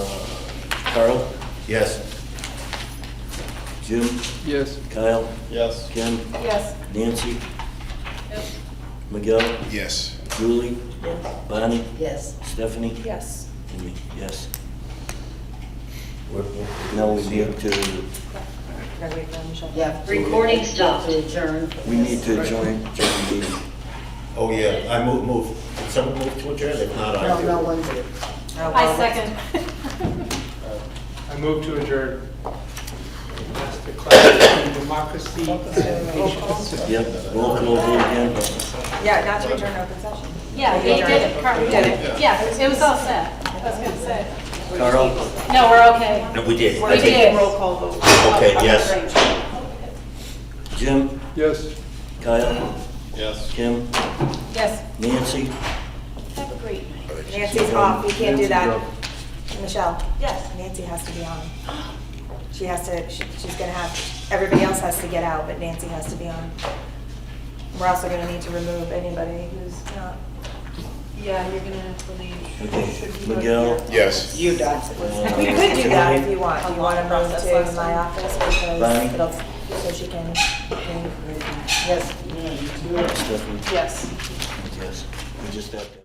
Carl, Yes. Jim, Yes. Kyle, Yes. Ken, Yes. Nancy, Yes. Miguel, Yes. Julie, Bonnie, Yes. Stephanie, Yes. and me, yes. Now we need to, Yeah. Recording stopped. To adjourn. we need to join, join the meeting. Oh, yeah, I move, move. Did someone move to adjourn? If not, I No, do. no one did. I second. I move to adjourn. That's the class in democracy and patience. Yep, roll call vote again. Yeah, not to adjourn open session. Yeah, we did it, Carl, we did it. Yeah, it was all set. I was gonna say. Carl? No, we're okay. No, we did. We did. Roll call vote. Okay, yes. Jim, Yes. Kyle, Yes. Kim, Yes. Nancy, Have a great night. Nancy's off, you can't do that. Nancy, Michelle? Yes. Nancy has to be on. She has to, she- she's gonna have, everybody else has to get out, but Nancy has to be on. We're also gonna need to remove anybody who's not. Yeah, you're gonna have to okay, leave. Miguel, Yes. You done. We could do that if you want. You wanna move to my office because Bonnie? it'll, so she can, can Yes. Uh, Stephanie, Yes. yes. We just have to.